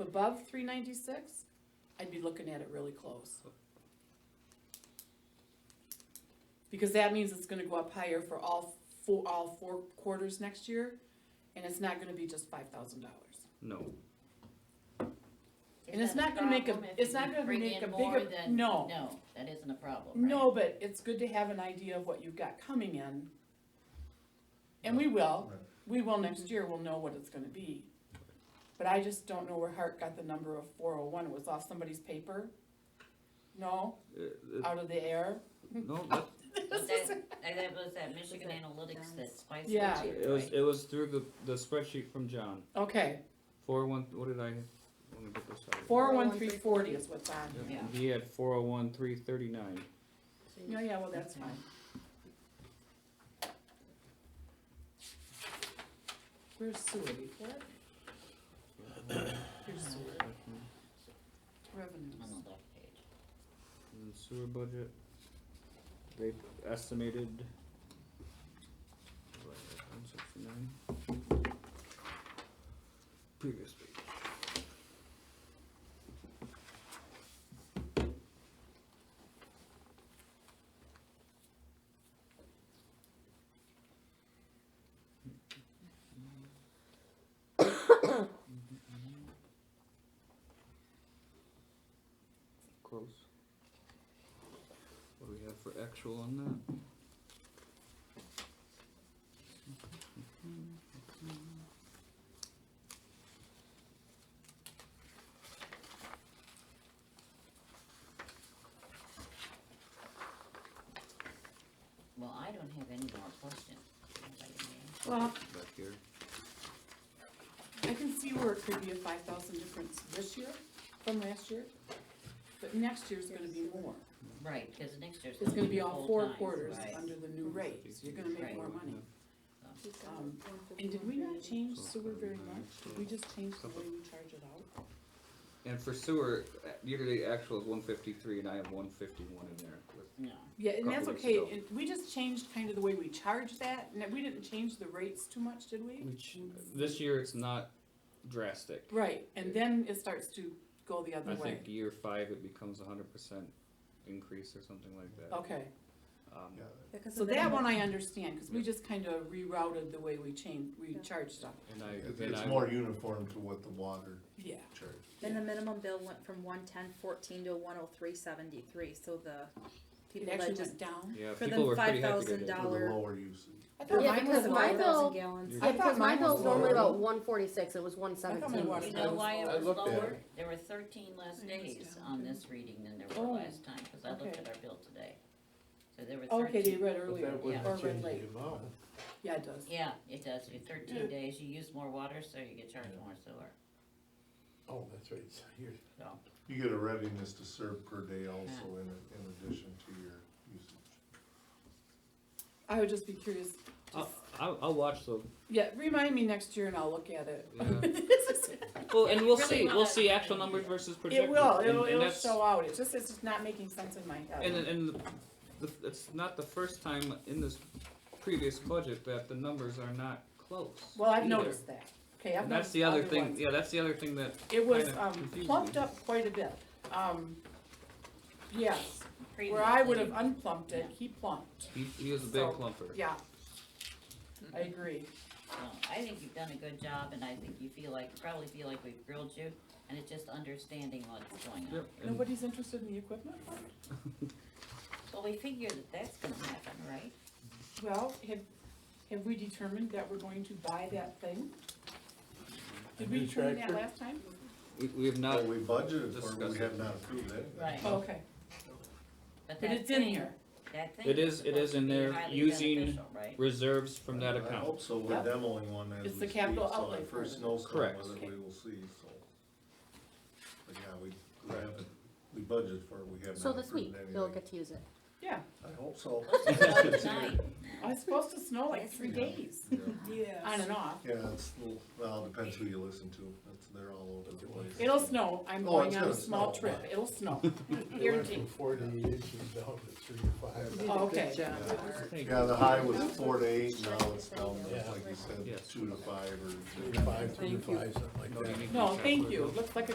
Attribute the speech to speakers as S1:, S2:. S1: above three ninety-six, I'd be looking at it really close. Because that means it's gonna go up higher for all four, all four quarters next year, and it's not gonna be just five thousand dollars.
S2: No,
S1: And it's
S3: that
S1: not gonna make a-
S3: problem if
S1: it's
S3: you
S1: not gonna
S3: bring
S1: make
S3: in
S1: a
S3: more
S1: bigger-
S3: than-
S1: no.
S3: No, that isn't a problem, right?
S1: No, but it's good to have an idea of what you've got coming in. And we will,
S4: Right.
S1: we will next year, we'll know what it's gonna be. But I just don't know where Hart got the number of four oh one, it was off somebody's paper? No,
S2: uh, uh,
S1: out of the air?
S2: no, that,
S3: Was that, and that was that Michigan
S5: that
S3: Analytics
S5: done?
S3: that Spice
S1: Yeah.
S3: did,
S2: it was,
S3: right?
S2: it was through the, the spreadsheet from John,
S1: Okay,
S2: four one, what did I, let me get this out.
S1: four oh one three forty is what's on
S2: Yeah,
S1: here.
S3: Yeah.
S2: and He had four oh one, three thirty-nine,
S5: So
S1: No,
S5: you-
S1: yeah, well, that's fine. Where's sewer report? Here's sewer
S3: On
S1: revenues.
S3: the left page.
S2: and then sewer budget. They estimated. One sixty-nine. Previous page. Close. What do we have for actual on that?
S3: Well, I don't have any more questions. Anybody may?
S1: Well,
S2: Back here.
S1: I can see where it could be a five thousand difference this year from last year, but next year's gonna be more.
S3: Right, cause next year's.
S1: It's gonna be
S3: the
S1: all
S3: full
S1: four
S3: times,
S1: quarters
S3: right.
S1: under the new rate, so you're gonna make more money.
S5: He's got
S1: Um,
S5: 151
S1: And did we not
S5: million.
S1: change sewer very much? Did we just change the way we charge it out?
S2: And for sewer, uh, yearly actual is one fifty-three and I have one fifty-one in there with
S3: No,
S1: Yeah, and that's
S2: Couple weeks
S1: okay,
S2: ago.
S1: and we just changed kind of the way we charge that, and we didn't change the rates too much, did we?
S2: Which, this year it's not drastic.
S1: Right, and then it starts to go the
S2: I
S1: other way.
S2: think year five, it becomes a hundred percent increase or something like that.
S1: Okay,
S2: Um,
S1: Oh.
S4: Yeah,
S5: Yeah, 'cause
S1: so
S5: of the
S1: that
S5: number.
S1: one I understand, cause we just kind of rerouted the way we changed, we
S5: Yeah.
S1: charged stuff,
S2: And I,
S4: it-
S2: then
S4: it's
S2: I,
S4: more uniform to what the water
S1: yeah.
S4: charge.
S5: Then the minimum bill went from one ten fourteen to one oh three seventy-three, so the
S1: It
S5: people
S1: actually
S5: that just,
S1: went down.
S2: yeah,
S5: for
S2: people
S5: the
S2: were pretty happy
S5: $5,000
S2: that day.
S4: For
S5: Dollar.
S4: the lower usage.
S1: I thought
S6: Yeah,
S1: mine
S6: because
S1: was
S6: my
S1: lower.
S6: bill-
S5: gallons.
S6: Yeah,
S1: I
S6: because
S1: thought
S6: my
S1: mine was
S6: bill's normally
S1: lower.
S6: about one forty-six, it was one seventeen.
S1: water
S3: you know
S1: was
S3: why it
S1: lower.
S4: I
S3: was
S4: looked at
S3: lower?
S4: it.
S3: There were thirteen less
S1: I understand.
S3: days on this reading than there
S1: Oh,
S3: were last time, cause I looked
S1: okay.
S3: at our bill today. So there were
S1: Okay, they
S3: thirteen,
S1: read earlier,
S3: was
S1: or read late, yeah, it does.
S3: yeah, it does, you thirteen days, you use more water, so you get charged more sewer,
S7: Oh, that's right, it's here.
S3: so.
S4: You get a readiness to serve per day also in, in addition to your usage.
S1: I would just be curious,
S2: I'll, I'll, I'll watch the,
S1: yeah, remind me next year and I'll look at it.
S2: Yeah.
S1: This is-
S2: well, and we'll
S3: Really
S2: see,
S3: not
S2: we'll
S3: a-
S2: see actual numbers versus
S1: It
S2: projected.
S1: will,
S2: and-
S1: it'll,
S2: and
S1: it'll
S2: that's-
S1: show out, it's just, it's just not making sense in my
S2: And,
S1: head.
S2: and the, it's not the first time in this previous budget that the numbers are not close.
S1: Well, I've
S2: either.
S1: noticed that, okay, I've
S2: And that's
S1: noticed
S2: the other thing,
S1: ones.
S2: yeah, that's the other thing that
S1: It was,
S2: kinda
S1: um,
S2: confused
S1: plumped
S2: me.
S1: up quite a bit, um, yes, where
S3: Previously-
S1: I would have unplumped it, he plumped,
S2: He, he is a big
S1: So,
S2: clumper.
S1: yeah. I agree,
S3: No, Oh, I think you've done a good job, and I think you feel like, probably feel like we've grilled you, and it's just understanding what's going on.
S2: Yep, and
S1: nobody's interested in the equipment fund?
S3: Well, we figure that that's gonna happen, right?
S1: Well, have, have we determined that we're going to buy that thing? Did we
S7: new
S1: determine that
S7: tractor?
S1: last time?
S2: we, we have not,
S4: But we budgeted for, it, we
S2: discussed
S4: have not approved anything.
S3: Right.
S1: Oh, Okay, but
S3: that
S1: it's in
S3: thing-
S1: here,
S3: That thing.
S2: It is- it
S3: supposed
S2: is
S3: to
S2: in
S3: be
S2: there
S3: highly
S2: using
S3: beneficial, Right,
S2: reserves from that
S4: I hope
S2: account.
S4: so, we're
S1: Yep.
S4: demoing one as we
S1: It's the
S4: speak,
S1: capital
S4: so
S1: outlay
S4: our
S1: program.
S4: first snowstorm
S2: Correct.
S4: whether
S1: Okay.
S4: we will see, so. But yeah, we, we haven't, we budgeted for it, we have
S6: So
S4: not
S6: this
S4: approved
S6: week, you'll
S4: anything.
S6: get to use it.
S1: yeah,
S4: I hope so.
S3: tonight.
S1: Oh, it's supposed to snow like three days, on and off.
S4: Yeah, it's, a little- well, depends who you listen to, it's, they're all over the place.
S1: It'll snow, I'm
S4: Oh,
S1: going
S4: it's
S1: on a
S4: gonna
S1: small
S4: snow,
S1: trip,
S4: but-
S1: it'll snow,
S7: It went
S1: guaranteed.
S7: from forty inches down to three to five.
S1: Oh, Okay.
S4: Yeah, the high was four to eight, now it's down, to,
S7: Yeah.
S4: like you said,
S2: Yes.
S4: two to five or.
S7: Three to five, two to
S1: Thank you.
S7: five, something like that.
S1: No, thank you, looks like a